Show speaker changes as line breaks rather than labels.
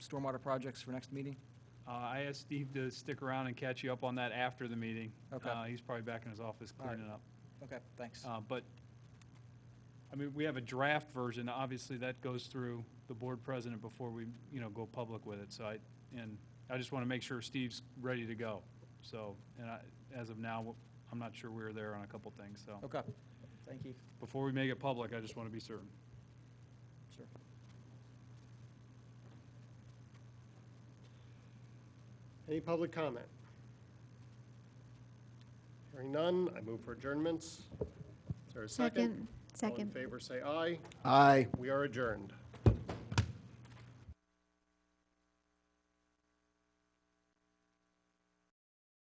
stormwater projects for next meeting?
Uh, I asked Steve to stick around and catch you up on that after the meeting.
Okay.
Uh, He's probably back in his office
All right.
cleaning up.
Okay, thanks.
Uh, But, I mean, we have a draft version, obviously that goes through the board president before we, you know, go public with it, so I, and I just want to make sure Steve's ready to go, so, and I, as of now, I'm not sure we're there on a couple things, so.
Okay, thank you.
Before we make it public, I just want to be certain.
Sure.
Any public comment? Hearing none, I move for adjournments. Is there a second?
Second,
All in
second.
favor, say aye.
Aye.
We are adjourned.